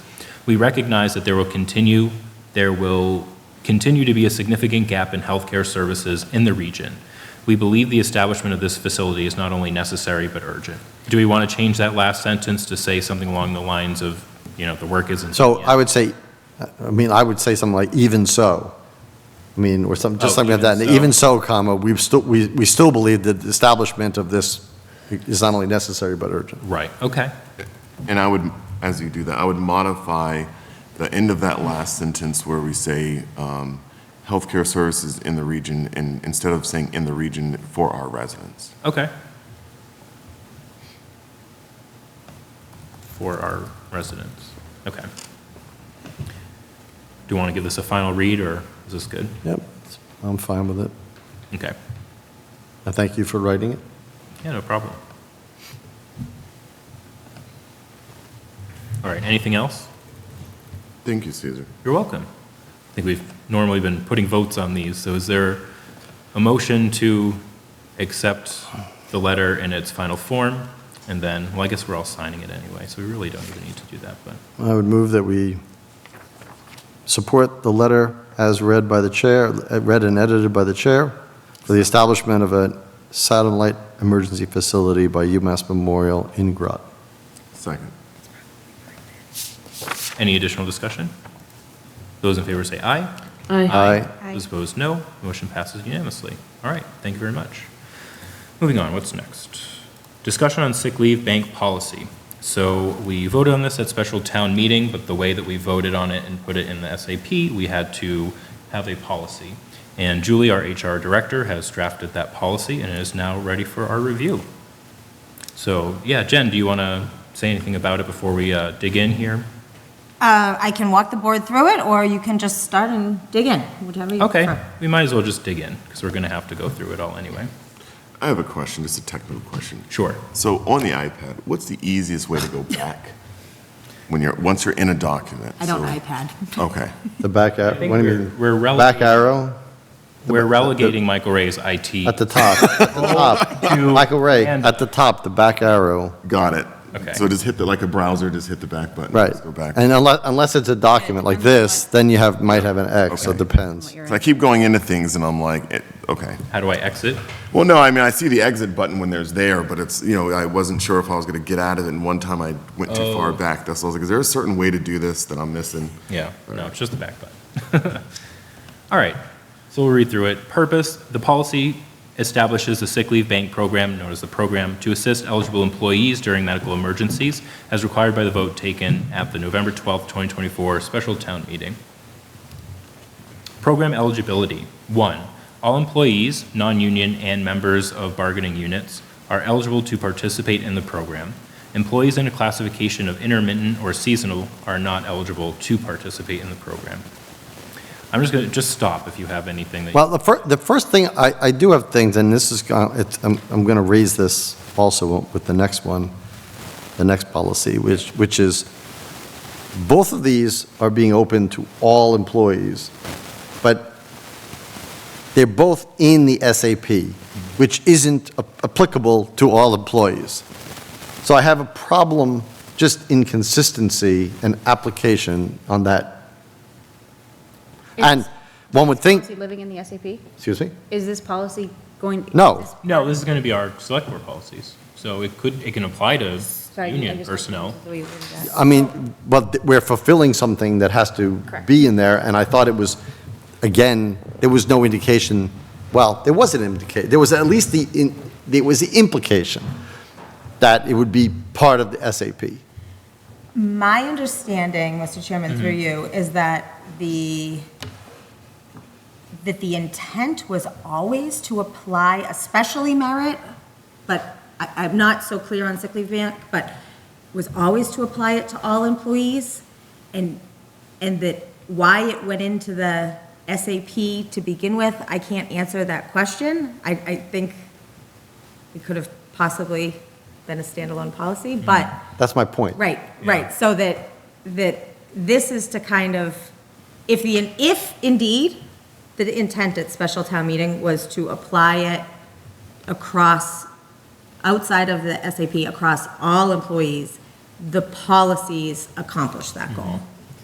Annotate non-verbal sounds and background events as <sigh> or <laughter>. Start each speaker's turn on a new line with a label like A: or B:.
A: We recognize that there will continue, there will continue to be a significant gap in healthcare services in the region. We believe the establishment of this facility is not only necessary but urgent. Do we want to change that last sentence to say something along the lines of, you know, the work isn't...
B: So I would say, I mean, I would say something like even so. I mean, or something, just
A: Oh,
B: something like that.
A: even
B: And
A: so.
B: Even so, comma, we've still, we, we still believe that the establishment of this is not only necessary but urgent.
A: Right, okay.
C: And I would, as you do that, I would modify the end of that last sentence where we say, um, healthcare services in the region, and instead of saying in the region for our residents.
A: Okay. For our residents. Okay. Do you want to give this a final read, or is this good?
B: Yep, I'm fine with it.
A: Okay.
B: I thank you for writing it.
A: Yeah, no problem. All right, anything else?
C: Thank you, Caesar.
A: You're welcome. I think we've normally been putting votes on these, so is there a motion to accept the letter in its final form? And then, well, I guess we're all signing it anyway, so we really don't even need to do that, but.
B: I would move that we support the letter as read by the chair, uh, read and edited by the chair for the establishment of a satellite emergency facility by UMass Memorial in Groton.
C: Second.
A: Any additional discussion? Those in favor say aye.
D: Aye.
B: Aye.
A: Those opposed, no. Motion passes unanimously. All right, thank you very much. Moving on, what's next? Discussion on sick leave bank policy. So we voted on this at special town meeting, but the way that we voted on it and put it in the SAP, we had to have a policy. And Julie, our HR director, has drafted that policy and it is now ready for our review. So, yeah, Jen, do you want to say anything about it before we uh, dig in here?
D: Uh, I can walk the board through it, or you can just start and dig in, whatever you
A: Okay,
D: prefer.
A: we might as well just dig in, because we're going to have to go through it all anyway.
C: I have a question, just a technical question.
A: Sure.
B: Uh,
C: So on the iPad, what's the easiest way to go back when you're, once you're in a document?
D: I don't
C: So-
D: iPad.
C: Okay.
B: The back
A: I
B: arrow,
A: think
B: what do you
A: we're-
B: mean?
A: we're
B: Back
A: relegating-
B: arrow
A: We're relegating Michael Ray's IT.
B: at the top, at the top. Michael Ray,
A: and-
B: at the top, the back arrow,
C: Got it.
A: Okay.
C: So just hit the, like a browser, just hit the back button.
B: right.
C: just Go back.
B: And unless, unless it's a document like this, then you have, might have an X, so it
C: Okay.
B: depends.
C: So I keep going into things and I'm like, it- okay.
A: How do I exit?
C: Well, no, I mean, I see the exit button when there's there, but it's, you know, I wasn't sure if I was going to get out of it, and one time I went too far
A: Oh.
C: back. That's, what I was like, is there a certain way to do this that I'm missing?
A: Yeah, no, it's just the back button. <laughs> All right, so we'll read through it. Purpose, the policy establishes the sick leave bank program, known as the program, to assist eligible employees during medical emergencies as required by the vote taken at the November 12th, 2024 special town meeting. Program eligibility. One, all employees, non-union, and members of bargaining units are eligible to participate in the program. Employees in a classification of intermittent or seasonal are not eligible to participate in the program. I'm just going to, just stop if you have anything that,
B: Well, the first, the first thing, I, I do have things, and this is, uh, it's- I'm, I'm going to raise this also with the next one, the next policy, which, which is, both of these are being open to all employees, but they're both in the SAP, which isn't a- applicable to all employees. So I have a problem, just inconsistency and application on that. And one would think,
E: Is he living in the SAP?
B: Excuse me?
E: Is this policy going?
B: No.
E: is this-
A: no, this is going to be our select board policies. So it could, it can apply to
E: Sorry, I
A: union
E: just-
A: personnel.
E: the way you worded that.
B: I mean, but th- we're fulfilling something that has to
E: Correct.
B: be in there, and I thought it was, again, there was no indication, well, there was an indication, there was at least the, in- there was the implication that it would be part of the SAP.
D: My understanding, Mr. Chairman, through you, is that the, that the intent was always to apply especially merit, but I, I'm not so clear on sick leave ban, but was always to apply it to all employees, and, and that why it went into the SAP to begin with, I can't answer that question. I, I think it could have possibly been a standalone policy, but
B: That's my point.
D: Right, right, so that, that this is to kind of, if the, if indeed, the intent at special town meeting was to apply it across, outside of the SAP, across all employees, the policies accomplish that goal.